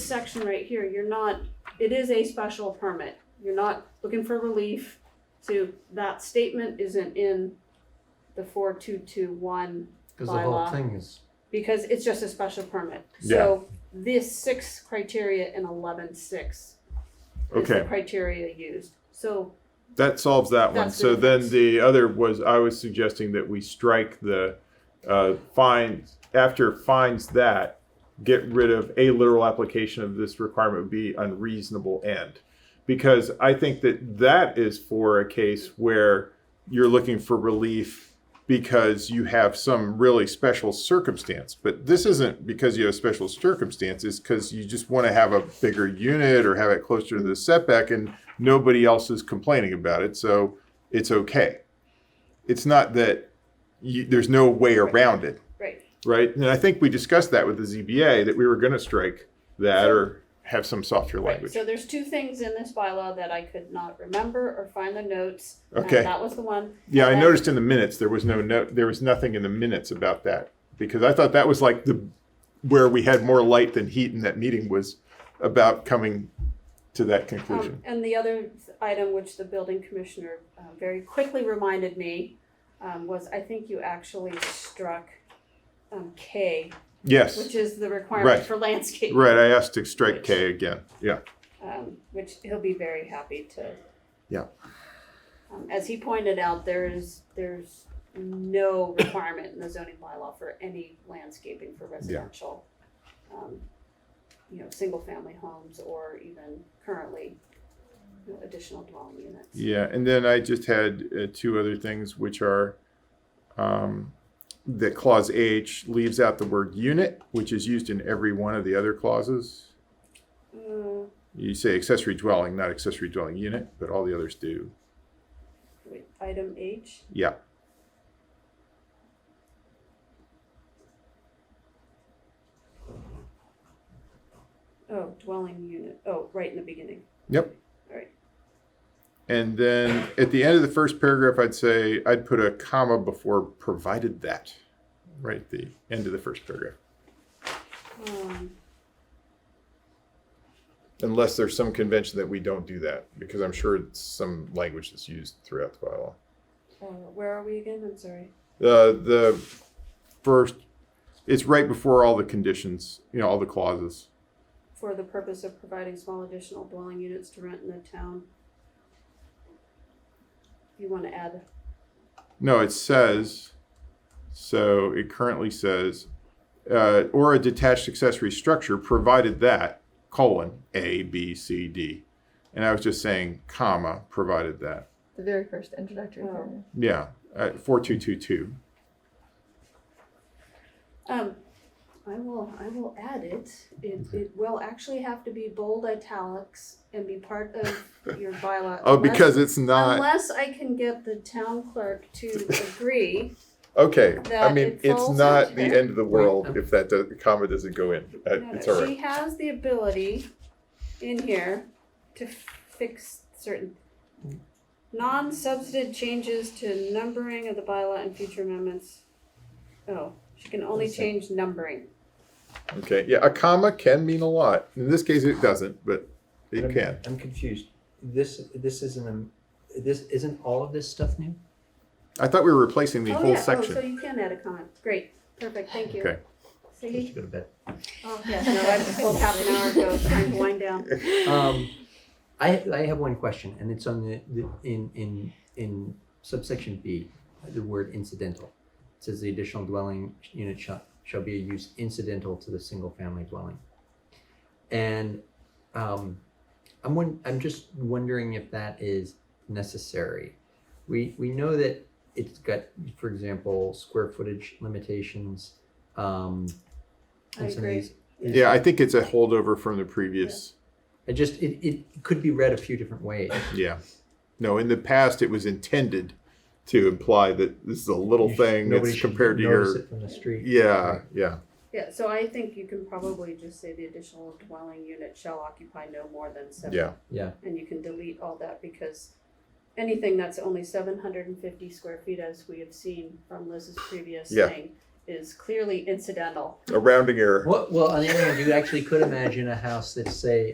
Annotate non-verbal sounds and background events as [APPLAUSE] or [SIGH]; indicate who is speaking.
Speaker 1: section right here, you're not, it is a special permit. You're not looking for relief to, that statement isn't in the four two two one
Speaker 2: Cause the whole
Speaker 1: Bylaw.
Speaker 2: thing is,
Speaker 1: because it's just a special permit. So this six criteria and eleven six is the
Speaker 3: Okay,
Speaker 1: criteria used. So
Speaker 3: that solves that one.
Speaker 1: That's
Speaker 3: So
Speaker 1: the
Speaker 3: then
Speaker 1: difference.
Speaker 3: the other was, I was suggesting that we strike the, uh, finds, after finds that, get rid of a literal application of this requirement would be unreasonable end. Because I think that that is for a case where you're looking for relief because you have some really special circumstance. But this isn't because you have special circumstances, because you just want to have a bigger unit or have it closer to the setback and nobody else is complaining about it. So it's okay. It's not that you, there's no way around it
Speaker 1: right.
Speaker 3: right? And I think we discussed that with the ZBA that we were going to strike that or have some softer
Speaker 1: Right,
Speaker 3: language.
Speaker 1: so there's two things in this bylaw that I could not remember or find the notes. and
Speaker 3: Okay.
Speaker 1: That was the one.
Speaker 3: yeah, I
Speaker 1: and-
Speaker 3: noticed in the minutes there was no note, there was nothing in the minutes about that because I thought that was like the where we had more light than heat in that meeting was about coming to that
Speaker 1: Um,
Speaker 3: conclusion.
Speaker 1: and the other item which the building commissioner um, very quickly reminded me um, was I think you actually struck um, K,
Speaker 3: yes,
Speaker 1: which is the requirement
Speaker 3: Right.
Speaker 1: for landscape.
Speaker 3: right. I asked to strike K again. Yeah,
Speaker 1: um, which he'll be very happy to.
Speaker 3: Yeah.
Speaker 1: Um, as he pointed out, there is there's no requirement in the zoning bylaw for any landscaping for residential, um, you know, single family homes or even currently you know, additional dwelling units.
Speaker 3: yeah. And then I just had uh, two other things, which are. Um, that clause H leaves out the word unit, which is used in every one of the other clauses.
Speaker 1: Mm,
Speaker 3: You say accessory dwelling, not accessory dwelling unit, but all the others do.
Speaker 1: wait, item H.
Speaker 3: Yeah.
Speaker 1: Oh, dwelling unit. Oh, right in the beginning.
Speaker 3: Yep.
Speaker 1: All right.
Speaker 3: And then at the end of the first paragraph, I'd say I'd put a comma before provided that, right at the end of the first paragraph.
Speaker 1: Um,
Speaker 3: Unless there's some convention that we don't do that, because I'm sure it's some language that's used throughout the bylaw.
Speaker 1: uh, where are we again? I'm sorry.
Speaker 3: The the first, it's right before all the conditions, you know, all the clauses.
Speaker 1: for the purpose of providing small additional dwelling units to rent in the town. You wanna add,
Speaker 3: No, it says, so it currently says, uh, or a detached accessory structure, provided that, colon, A, B, C, D. And I was just saying, comma, provided that.
Speaker 4: The very first introductory
Speaker 1: Oh.
Speaker 4: paragraph.
Speaker 3: Yeah, uh, 4222.
Speaker 1: um, I will, I will add it, it, it will actually have to be bold italics and be part of your bylaw.
Speaker 3: Oh,
Speaker 1: unless-
Speaker 3: because it's not.
Speaker 1: Unless I can get the town clerk
Speaker 3: [LAUGHS]
Speaker 1: to agree,
Speaker 3: Okay, I
Speaker 1: that
Speaker 3: mean,
Speaker 1: it
Speaker 3: it's
Speaker 1: falls
Speaker 3: not
Speaker 1: into
Speaker 3: the
Speaker 1: that.
Speaker 3: end of the world if that does, comma doesn't go in. Uh, It's all
Speaker 1: she
Speaker 3: right.
Speaker 1: has the ability in here to fix certain non-substantive changes to numbering of the bylaw and future amendments. Oh, she can only change numbering.
Speaker 3: Okay, yeah, a comma can mean a lot. In this case, it doesn't, but it
Speaker 5: I'm-
Speaker 3: can.
Speaker 5: I'm confused. This, this isn't, um, this, isn't all of this stuff new?
Speaker 3: I thought we were replacing the
Speaker 1: Oh,
Speaker 3: whole
Speaker 1: yeah. Oh, so
Speaker 3: section.
Speaker 1: you can add a comment. Great, perfect, thank you.
Speaker 3: Okay.
Speaker 5: Just
Speaker 1: See,
Speaker 5: go to bed.
Speaker 1: oh, yeah, no, I just pulled half an hour ago, trying to wind down.
Speaker 5: Um, I, I have one question, and it's on the, the, in, in, in subsection B, the word incidental. It Says the additional dwelling unit shall, shall be a use incidental to the single-family dwelling. And, um, I'm one, I'm just wondering if that is necessary. We, we know that it's got, for example, square footage limitations, um,
Speaker 1: I
Speaker 5: and some of
Speaker 1: agree.
Speaker 5: these.
Speaker 3: Yeah, I think it's a holdover from the previous.
Speaker 5: It just, it, it could be read a few different ways.
Speaker 3: Yeah. No, in the past, it was intended to imply that this is a little
Speaker 5: You should-
Speaker 3: thing
Speaker 5: nobody
Speaker 3: that's
Speaker 5: should
Speaker 3: compared to
Speaker 5: notice
Speaker 3: your.
Speaker 5: it from the street.
Speaker 3: Yeah, yeah.
Speaker 1: Yeah, so I think you can probably just say the additional dwelling unit shall occupy no more than seven
Speaker 3: Yeah.
Speaker 5: Yeah.
Speaker 1: And you can delete all that because anything that's only seven hundred and fifty square feet, as we have seen from Liz's previous
Speaker 3: Yeah.
Speaker 1: thing, is clearly incidental
Speaker 2: a rounding error.
Speaker 5: What, well, on the other hand, you actually could imagine a house that's say